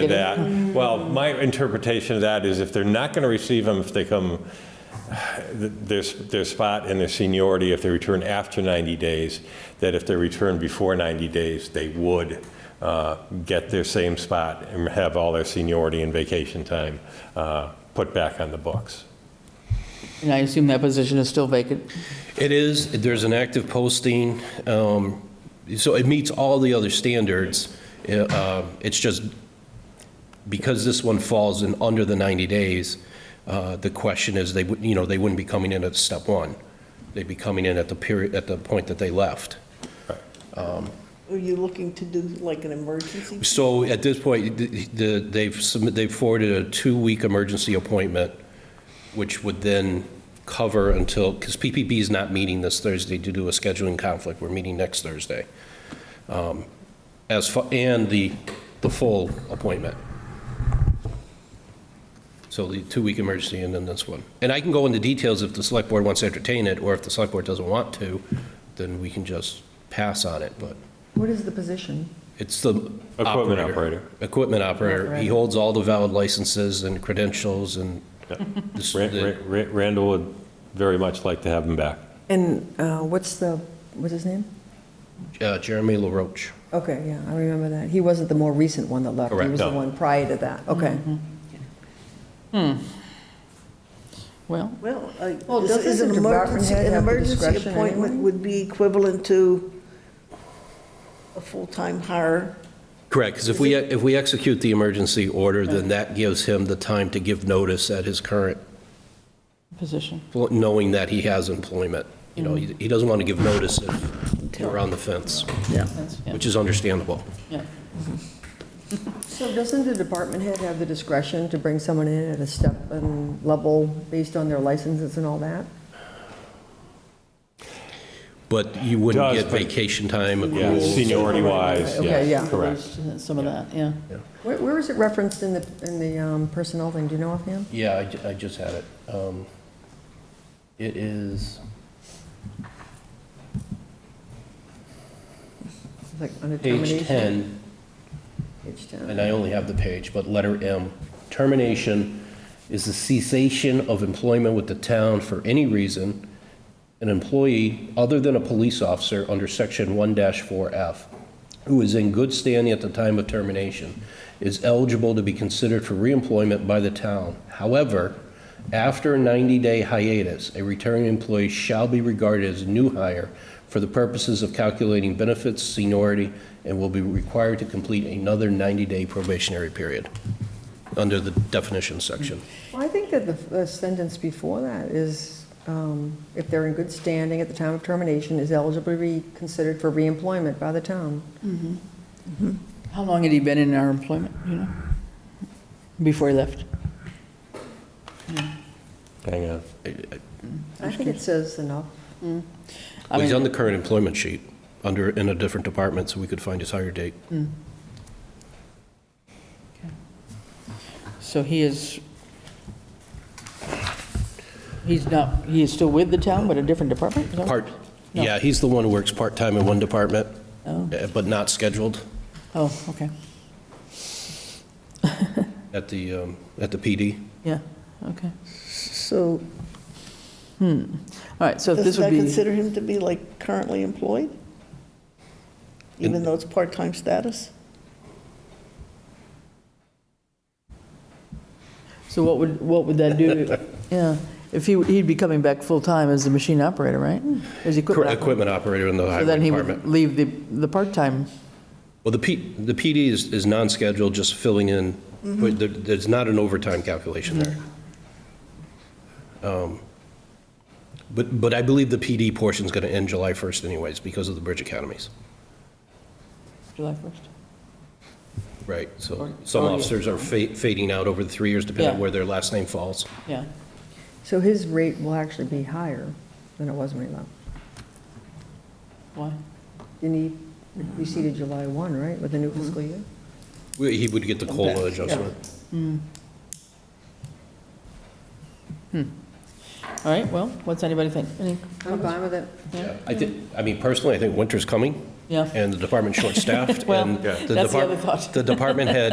of that. Negative. Well, my interpretation of that is if they're not going to receive them, if they come, their, their spot and their seniority, if they return after 90 days, that if they return before 90 days, they would uh, get their same spot and have all their seniority and vacation time uh, put back on the books. And I assume that position is still vacant? It is, there's an active posting, um, so it meets all the other standards. Uh, It's just, because this one falls in under the 90 days, uh, the question is, they, would you know, they wouldn't be coming in at step one. They'd be coming in at the period, at the point that they left. Are you looking to do like an emergency? So at this point, the- the- they've submit- they've forwarded a two-week emergency appointment, which would then cover until, because PPP is not meeting this Thursday due to a scheduling conflict. We're meeting next Thursday. Um, As, fa- and the, the full appointment. So the two-week emergency and then this one. And I can go into details if the select board wants to entertain it, or if the select board doesn't want to, then we can just pass on it, but. What is the position? It's the Equipment operator. Equipment operator. He Operator. holds all the valid licenses and credentials and this- Ra- the- Ra- Ra- Randall would very much like to have them back. And uh, what's the, what's his name? uh, Jeremy LaRoche. Okay, yeah, I remember that. He wasn't the more recent one that left. Correct, He was the no. one prior to that. Okay. Well, Well, I- Well, this doesn't is an the department emergency, head an have the emergency discretion appointment anyway? would be equivalent to a full-time hire. Correct, because if we, if we execute the emergency order, then that gives him the time to give notice at his current, position. knowing that he has employment. You know, he he doesn't want to give notice if we're on the fence, That's- yeah, which is understandable. yeah. So doesn't the department head have the discretion to bring someone in at a step and level based on their licenses and all that? But you wouldn't Does, get but- vacation time, Yeah, accruals. seniority wise, Okay, yeah, yeah. correct. uh, Some of that, yeah. Where, where is it referenced in the, in the um, personnel thing? Do you know offhand? Yeah, I ju- I just had it. Um, It is, It's Like under page termination? 10, Page and 10. I only have the page, but letter M, termination is the cessation of employment with the town for any reason an employee other than a police officer under section 1-4F who is in good standing at the time of termination is eligible to be considered for reemployment by the town. However, after a 90-day hiatus, a returning employee shall be regarded as a new hire for the purposes of calculating benefits, seniority, and will be required to complete another 90-day probationary period under the definition section. Well, I think that the- the sentence before that is, um, if they're in good standing at the time of termination, is eligible to be considered for reemployment by the town. How long had he been in our employment, you know? Before he left? Hang on. I think it says enough. I Well, He's mean- on the current employment sheet, under, in a different department, so we could find his hire date. So he is, he's not, he is still with the town, but a different department? is that- Part, No. yeah, he's the one who works part-time in one department, Oh, eh, but not scheduled oh, okay, at the, um, at the PD. yeah, okay. So All right, so if does this would that be. consider him to be like currently employed? Even though it's part-time status? So what would, what would that do? to- Yeah, if he, he'd be coming back full-time as the machine operator, right? As equipment Cor- operator. Equipment operator in the So highway then he would department. leave the, the part-time, Well, the P, the PD is, is non-scheduled, just filling in, but there, there's not an overtime calculation there. Um, But, but I believe the PD portion's gonna end July 1st anyways, because of the bridge academies. July 1st. Right, so Or- some or- officers are fa- fading out over the three years, depending on Oh, Yeah. where their last name falls. Yeah, So his rate will actually be higher than it was when he left. why? And he receded July 1, right, with the new fiscal year? We- He would get the COLA adjustment. All right, well, what's anybody think? Any- I'm fine with it. Yeah. I think, I mean, personally, I think winter's coming, Yeah, and the department's short-staffed, Well, and the that's the other depart- thought. the department head